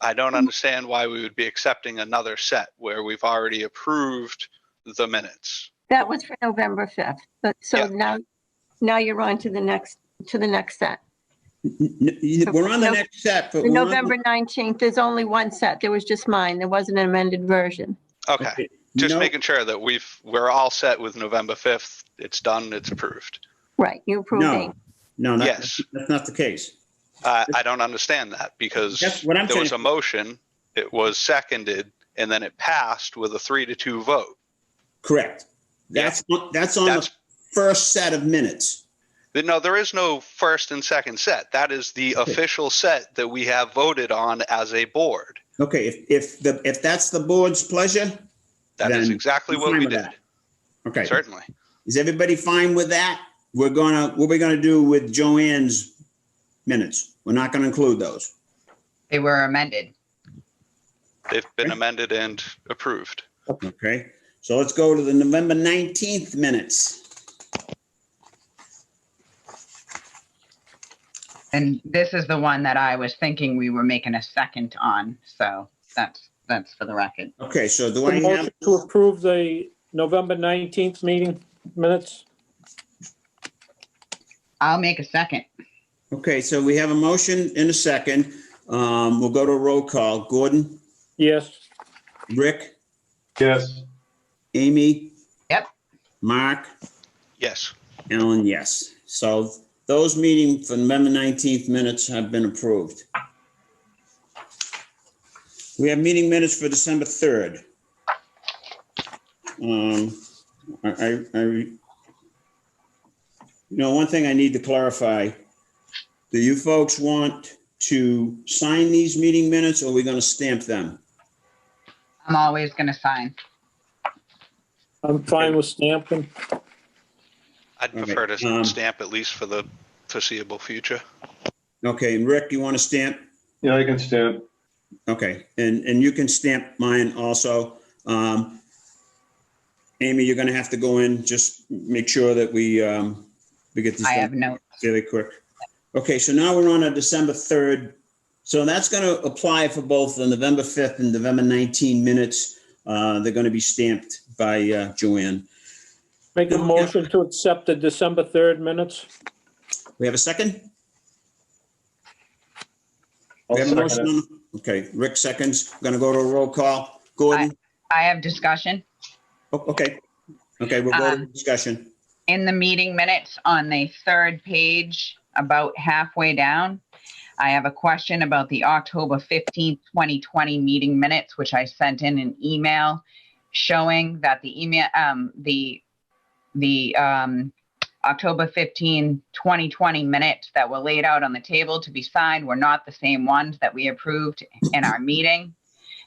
I Mm-hmm. don't understand why we would be accepting another set where we've already approved the minutes. That was for November 5th, but so Yeah. now, now you're on to the next, to the next set. N- n- We're on the No- next set, The but we're on the- November 19th, there's only one set. There was just mine. There wasn't an amended version. Okay, just No, making sure that we've, we're all set with November 5th. It's done, it's approved. Right, you approved eight. No, no, that- Yes. that's not the case. I, I don't understand that because That's what I'm there was a saying. motion, it was seconded, and then it passed with a three to two vote. Correct. That's, that's on the That's- first set of minutes. No, there is no first and second set. That is the official set that we have voted on as a board. Okay, if, if, the if that's the board's pleasure, That is Then exactly I'm what fine we with did, that. okay. certainly. Is everybody fine with that? We're gonna, what we're gonna do with Joanne's minutes? We're not gonna include those. They were amended. They've been Okay. amended and approved. Okay, so let's go to the November 19th minutes. And this is the one that I was thinking we were making a second on. So that's, that's for the record. Okay, so do I The have, motion to approve the November 19th meeting minutes? I'll make a second. okay, so we have a motion in a second. Um, we'll go to a roll call. Gordon, Yes, Rick, Yes, Amy? Yep. Mark? Yes, Ellen, yes. So those meeting for November 19th minutes have been approved. We have meeting minutes for December 3rd. Um, I, I, I, you know, one thing I need to clarify. Do you folks want to sign these meeting minutes or are we going to stamp them? I'm always going to sign. I'm fine with stamping. I'd Okay, prefer to um, stamp at least for the foreseeable future. Okay, and Rick, you want to stamp? yeah, I can stamp. Okay, and, and you can stamp mine also. Um, Amy, you're gonna have to go in, just make sure that we, um, we get this I have done no, fairly quick. Okay, so now we're on a December 3rd. So that's gonna apply for both the November 5th and November 19 minutes. Uh, they're gonna be stamped by, uh, Joanne. Make a motion to accept the December 3rd minutes? We have a second? I'll We have a second motion. it. on- Okay, Rick seconds. Gonna go to a roll call. Gordon? I have discussion. O- Okay, okay, we'll go to Um, discussion. in the meeting minutes on the third page, about halfway down, I have a question about the October 15th, 2020 meeting minutes, which I sent in an email showing that the email, um, the, the, um, October 15, 2020 minutes that were laid out on the table to be signed were not the same ones that we approved in our meeting.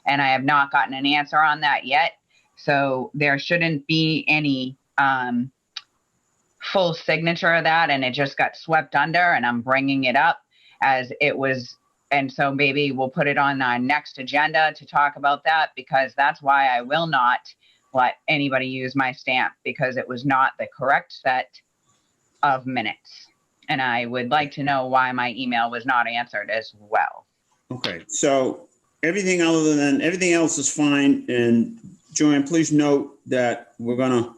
And I have not gotten an answer on that yet. So there shouldn't be any, um, full signature of that and it just got swept under and I'm bringing it up as it was and so maybe we'll put it on our next agenda to talk about that because that's why I will not let anybody use my stamp because it was not the correct set of minutes. And I would like to know why my email was not answered as well. Okay, so everything other than, everything else is fine, and Joanne, please note that we're gonna,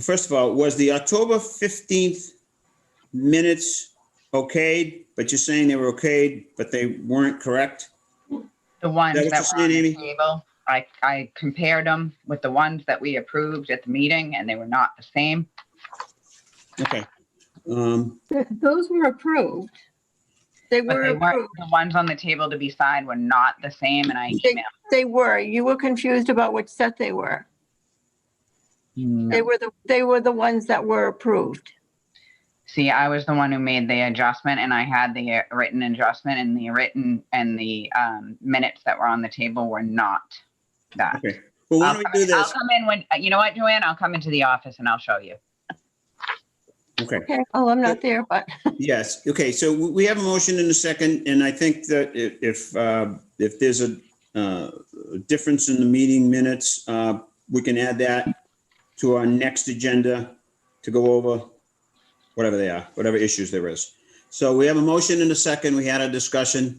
first of all, was the October 15th minutes okayed, but you're saying they were okayed, but they weren't correct? The ones Is that that what were you're on saying, the table, I, I compared them with the ones that we approved at the meeting and they were not the same. Okay. Um, Th- Those were approved. They But were, they weren't, approved. the ones on the table to be signed were not the same, and I They- they were. You were confused about which set they were. They emailed. were the, they were the ones that were approved. See, I was the one who made the adjustment, and I had the written adjustment, and the written and the um, minutes that were on the table were not that. okay, well, why I'll don't come we do in- I'll this? come in when, you know what, Joanne, I'll come into the office and I'll show you. Okay. Okay, oh, I'm not there, but Yes, okay, so we we have a motion in a second, and I think that i- if, uh, if there's a uh, difference in the meeting minutes, uh, we can add that to our next agenda to go over whatever they are, whatever issues there is. So we have a motion in a second, we had a discussion.